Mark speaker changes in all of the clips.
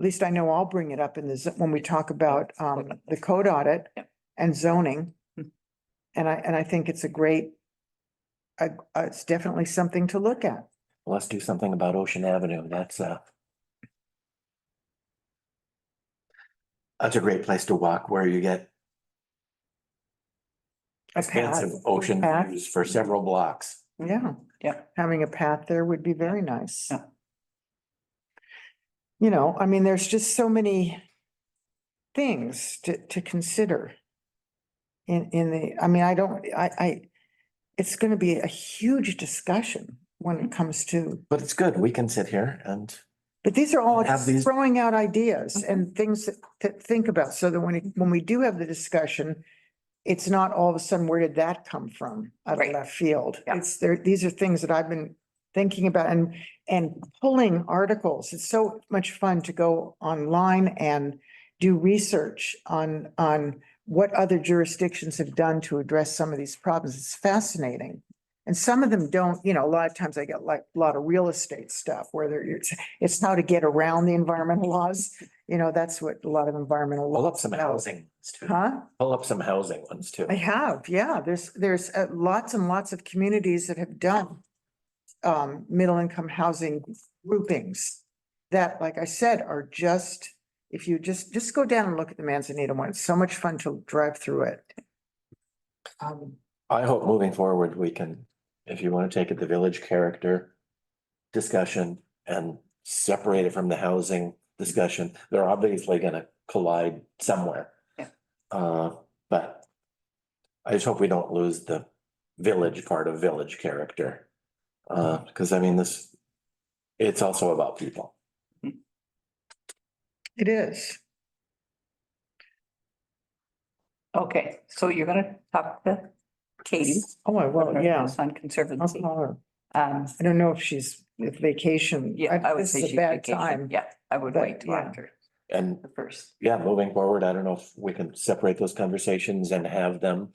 Speaker 1: at least I know I'll bring it up in the, z- when we talk about um the code audit
Speaker 2: Yep.
Speaker 1: and zoning.
Speaker 2: Hmm.
Speaker 1: And I, and I think it's a great, uh, it's definitely something to look at.
Speaker 3: Let's do something about Ocean Avenue. That's uh That's a great place to walk where you get
Speaker 1: A
Speaker 3: expansive
Speaker 1: path.
Speaker 3: ocean
Speaker 1: Path.
Speaker 3: views for several blocks.
Speaker 1: Yeah.
Speaker 2: Yeah.
Speaker 1: Having a path there would be very nice.
Speaker 2: Yeah.
Speaker 1: You know, I mean, there's just so many things to, to consider. In, in the, I mean, I don't, I, I, it's gonna be a huge discussion when
Speaker 2: Hmm.
Speaker 1: it comes to,
Speaker 3: But it's good. We can sit here and
Speaker 1: but these are all
Speaker 3: Have
Speaker 1: just
Speaker 3: these-
Speaker 1: throwing out ideas
Speaker 2: Mhm.
Speaker 1: and things that- to think about, so that when, it- when we do have the discussion, it's not all of a sudden, where did that come from out of
Speaker 2: Right.
Speaker 1: left field?
Speaker 2: Yeah.
Speaker 1: It's there, these are things that I've been thinking about and, and pulling articles. It's so much fun to go online and do research on, on what other jurisdictions have done to address some of these problems. It's fascinating. And some of them don't, you know, a lot of times I get like a lot of real estate stuff where they're, it's, it's how to get around the environmental laws. You know, that's what a lot of environmental
Speaker 3: pull
Speaker 1: law.
Speaker 3: up some housing ones too.
Speaker 1: Huh?
Speaker 3: Pull up some housing ones too.
Speaker 1: I have, yeah. There's, there's uh, lots and lots of communities that have done um, middle income housing groupings that, like I said, are just, if you just, just go down and look at the Manzanita one. It's so much fun to drive through it. Um,
Speaker 3: I hope moving forward, we can, if you want to take it, the village character discussion and separate it from the housing discussion, they're obviously gonna collide somewhere.
Speaker 2: Yeah.
Speaker 3: Uh, but I just hope we don't lose the village part of village character. Uh, because I mean, this, it's also about people.
Speaker 1: It is.
Speaker 2: Okay, so you're gonna talk to Katie.
Speaker 1: Oh, I will, yeah. Uh-huh.
Speaker 2: On
Speaker 1: I'll
Speaker 2: Conservancy.
Speaker 1: call her.
Speaker 2: Um,
Speaker 1: I don't know if she's, if vacation.
Speaker 2: yeah, I would
Speaker 1: this
Speaker 2: say
Speaker 1: is a
Speaker 2: she's
Speaker 1: Bad
Speaker 2: vacation.
Speaker 1: time.
Speaker 2: Yeah, I would
Speaker 1: but
Speaker 2: wait till
Speaker 1: yeah.
Speaker 2: after
Speaker 3: And
Speaker 2: the first.
Speaker 3: yeah, moving forward, I don't know if we can separate those conversations and have them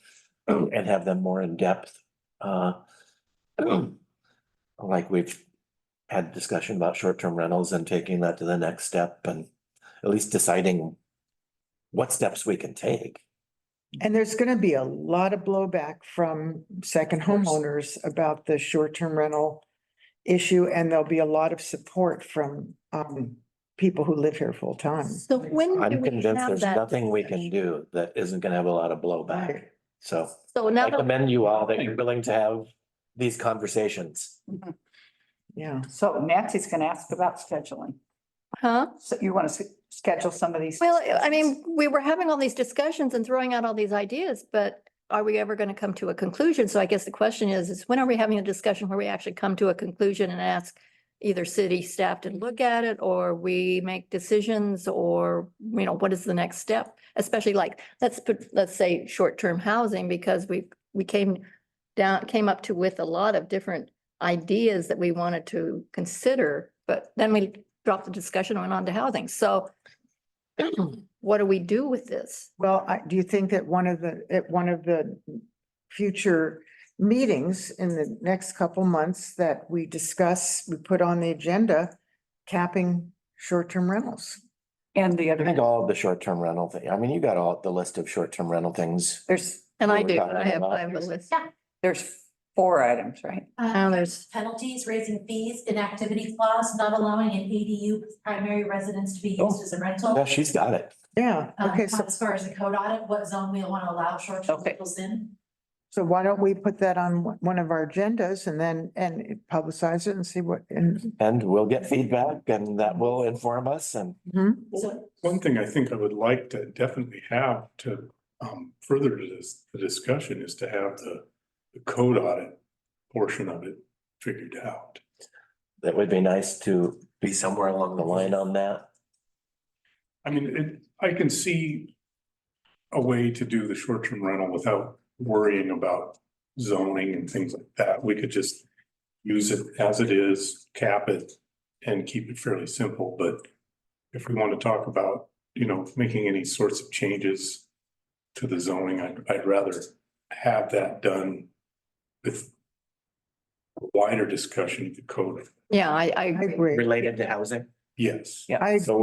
Speaker 3: and have them more in depth. Uh, like we've had discussion about short-term rentals and taking that to the next step and at least deciding what steps we can take.
Speaker 1: And there's gonna be a lot of blowback from second
Speaker 3: course.
Speaker 1: homeowners about the short-term rental issue, and there'll be a lot of support from um people who live here full-time.
Speaker 4: So when do
Speaker 3: I'm
Speaker 4: we
Speaker 3: convinced
Speaker 4: have
Speaker 3: there's
Speaker 4: that?
Speaker 3: nothing we can do that isn't gonna have a lot of blowback.
Speaker 1: Right.
Speaker 3: So
Speaker 4: So now
Speaker 3: I
Speaker 4: that
Speaker 3: commend you all that you're willing to have these conversations.
Speaker 1: Yeah,
Speaker 2: So Nancy's gonna ask about scheduling.
Speaker 4: Huh?
Speaker 2: So you want to schedule some of these?
Speaker 4: Well, I
Speaker 2: discussions?
Speaker 4: mean, we were having all these discussions and throwing out all these ideas, but are we ever going to come to a conclusion? So I guess the question is, is when are we having a discussion where we actually come to a conclusion and ask either city staff to look at it or we make decisions or, you know, what is the next step? Especially like, let's put, let's say short-term housing because we, we came down, came up to with a lot of different ideas that we wanted to consider, but then we dropped the discussion and went on to housing. So what do we do with this?
Speaker 1: well, I, do you think that one of the, at one of the future meetings in the next couple months that we discuss, we put on the agenda capping short-term rentals?
Speaker 2: And the
Speaker 3: I
Speaker 2: other,
Speaker 3: think all of the short-term rental thing, I mean, you got all the list of short-term rental things.
Speaker 2: there's,
Speaker 4: And I
Speaker 3: Well, we
Speaker 4: do,
Speaker 3: got
Speaker 4: I
Speaker 3: it
Speaker 4: have,
Speaker 3: all.
Speaker 4: I have a list.
Speaker 2: there's four items, right?
Speaker 4: Now
Speaker 5: Uh,
Speaker 4: there's,
Speaker 5: penalties, raising fees, inactivity clause, not allowing an ADU primary residence to be used as a rental.
Speaker 3: Yeah, she's got it.
Speaker 1: Yeah,
Speaker 5: Um,
Speaker 1: okay, so,
Speaker 5: As far as the code audit, what zone we want to allow short-term
Speaker 2: Okay.
Speaker 5: rentals in.
Speaker 1: so why don't we put that on one- one of our agendas and then, and publicize it and see what, and
Speaker 3: And we'll get feedback and that will inform us and
Speaker 1: Mhm.
Speaker 5: So
Speaker 6: One thing I think I would like to definitely have to um further to this, the discussion is to have the. The code audit portion of it figured out.
Speaker 3: that would be nice to be somewhere along the line on that.
Speaker 6: I mean, it, I can see. A way to do the short term rental without worrying about zoning and things like that. We could just. Use it as it is, cap it and keep it fairly simple, but. If we want to talk about, you know, making any sorts of changes. To the zoning, I'd, I'd rather have that done. With. a Wider discussion of the code,
Speaker 4: yeah, I, I
Speaker 1: I
Speaker 4: agree.
Speaker 1: agree.
Speaker 3: Related to housing?
Speaker 6: yes.
Speaker 2: Yeah.
Speaker 1: I
Speaker 3: So